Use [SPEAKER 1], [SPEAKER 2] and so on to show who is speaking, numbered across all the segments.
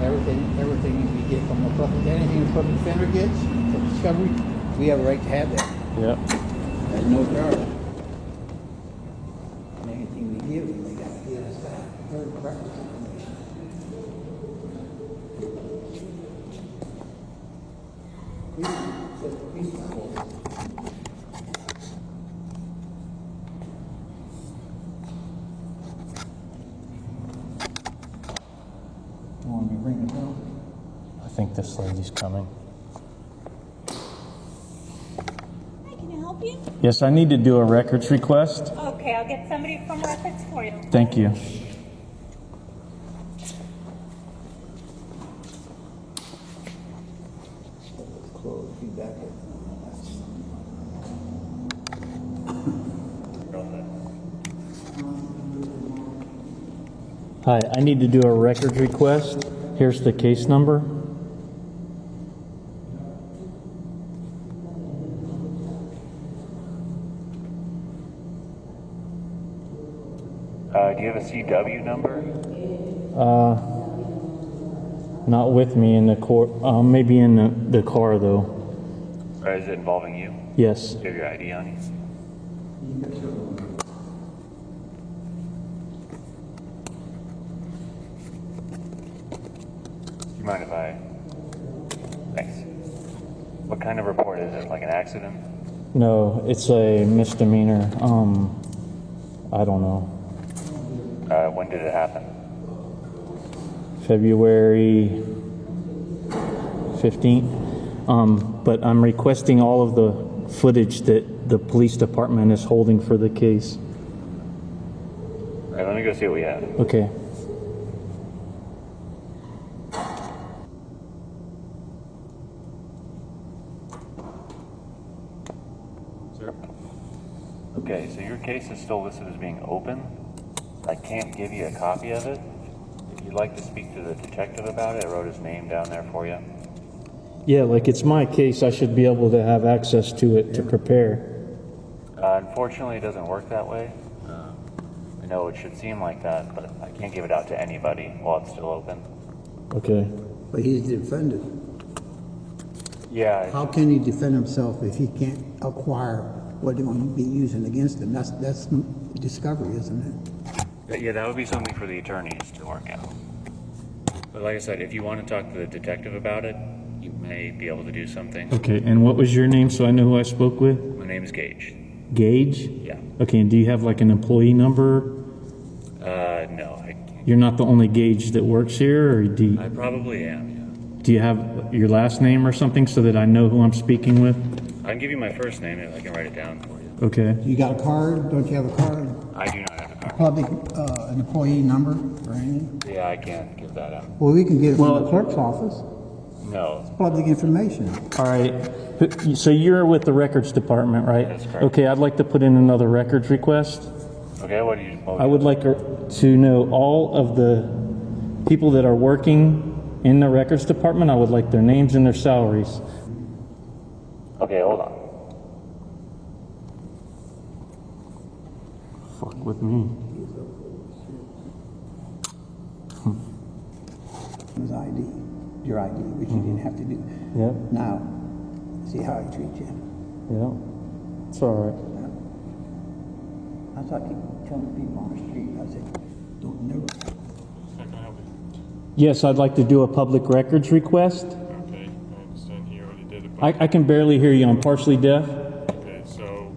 [SPEAKER 1] Everything, everything we get from the public, anything the public defender gets, from discovery, we have a right to have that.
[SPEAKER 2] Yep.
[SPEAKER 1] There's no charge. And anything we give them, they gotta give us that third reference information. We- the police report. You want me to bring it down?
[SPEAKER 2] I think this lady's coming.
[SPEAKER 3] Hi, can I help you?
[SPEAKER 2] Yes, I need to do a records request.
[SPEAKER 3] Okay, I'll get somebody from records for you.
[SPEAKER 2] Thank you.
[SPEAKER 1] Close, be back at.
[SPEAKER 2] Hi, I need to do a records request. Here's the case number.
[SPEAKER 4] Uh, do you have a CW number?
[SPEAKER 2] Not with me in the court, uh, maybe in the, the car though.
[SPEAKER 4] Or is it involving you?
[SPEAKER 2] Yes.
[SPEAKER 4] Do you have your ID on you? Do you mind if I? Thanks. What kind of report is it? Like an accident?
[SPEAKER 2] No, it's a misdemeanor. Um, I don't know.
[SPEAKER 4] Uh, when did it happen?
[SPEAKER 2] February 15th. Um, but I'm requesting all of the footage that the police department is holding for the case.
[SPEAKER 4] All right, let me go see what we have.
[SPEAKER 2] Okay.
[SPEAKER 4] Sir? Okay, so your case is still listed as being open. I can't give you a copy of it. If you'd like to speak to the detective about it, I wrote his name down there for you.
[SPEAKER 2] Yeah, like it's my case. I should be able to have access to it to prepare.
[SPEAKER 4] Uh, unfortunately, it doesn't work that way. Uh, I know it should seem like that, but I can't give it out to anybody while it's still open.
[SPEAKER 2] Okay.
[SPEAKER 1] But he's defended.
[SPEAKER 4] Yeah,
[SPEAKER 1] How can he defend himself if he can't acquire what they're going to be using against him? That's, that's discovery, isn't it?
[SPEAKER 4] yeah, that would be something for the attorneys to work out. But like I said, if you want to talk to the detective about it, you may be able to do something.
[SPEAKER 2] Okay. And what was your name so I know who I spoke with?
[SPEAKER 4] My name's Gage.
[SPEAKER 2] Gage?
[SPEAKER 4] Yeah.
[SPEAKER 2] Okay. And do you have like an employee number?
[SPEAKER 4] Uh, no, I, can't-
[SPEAKER 2] You're not the only Gage that works here, or do you,
[SPEAKER 4] I probably am.
[SPEAKER 2] do you have your last name or something so that I know who I'm speaking with?
[SPEAKER 4] Yeah. I can give you my first name if I can write it down for you.
[SPEAKER 2] Okay.
[SPEAKER 1] You got a card? Don't you have a card?
[SPEAKER 4] I do not have a card.
[SPEAKER 1] Public, uh, employee number or anything?
[SPEAKER 4] Yeah, I can't give that out.
[SPEAKER 1] Well, we can get it from
[SPEAKER 2] Well-
[SPEAKER 1] the clerk's office.
[SPEAKER 4] No,
[SPEAKER 1] Public information.
[SPEAKER 2] All right. Who- So you're with the records department, right?
[SPEAKER 4] That's correct.
[SPEAKER 2] Okay. I'd like to put in another records request.
[SPEAKER 4] okay, what do you? what
[SPEAKER 2] I would like er, to know all of the people that are working in the records department. I would like their names and their salaries.
[SPEAKER 4] Okay, hold on.
[SPEAKER 2] Fuck with me.
[SPEAKER 1] His ID, your ID, which you didn't have to do.
[SPEAKER 2] Yep,
[SPEAKER 1] Now, see how he treats you.
[SPEAKER 2] yep. It's all right.
[SPEAKER 1] That's what I keep telling people on the street. I said, don't never
[SPEAKER 5] How can I help you?
[SPEAKER 2] Yes, I'd like to do a public records request.
[SPEAKER 5] Okay, I understand he already did it,
[SPEAKER 2] I,
[SPEAKER 5] but,
[SPEAKER 2] I can barely hear you. I'm partially deaf.
[SPEAKER 5] okay, so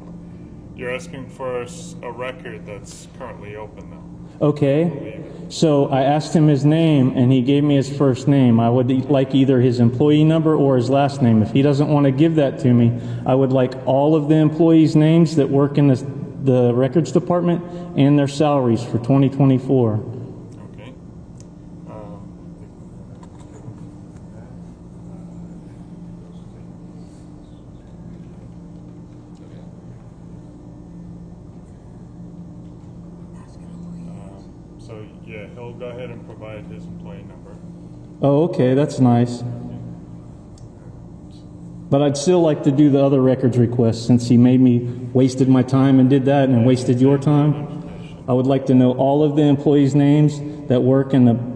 [SPEAKER 5] you're asking for a s- a record that's currently open now.
[SPEAKER 2] Okay. So I asked him his name and he gave me his first name. I would like either his employee number or his last name. If he doesn't want to give that to me, I would like all of the employees' names that work in the, the records department and their salaries for 2024.
[SPEAKER 5] Okay. Um, Um, So, yeah, he'll go ahead and provide his employee number.
[SPEAKER 2] Oh, okay. That's nice. But I'd still like to do the other records request since he made me wasted my time and did that and wasted your time. I would like to know all of the employees' names that work in the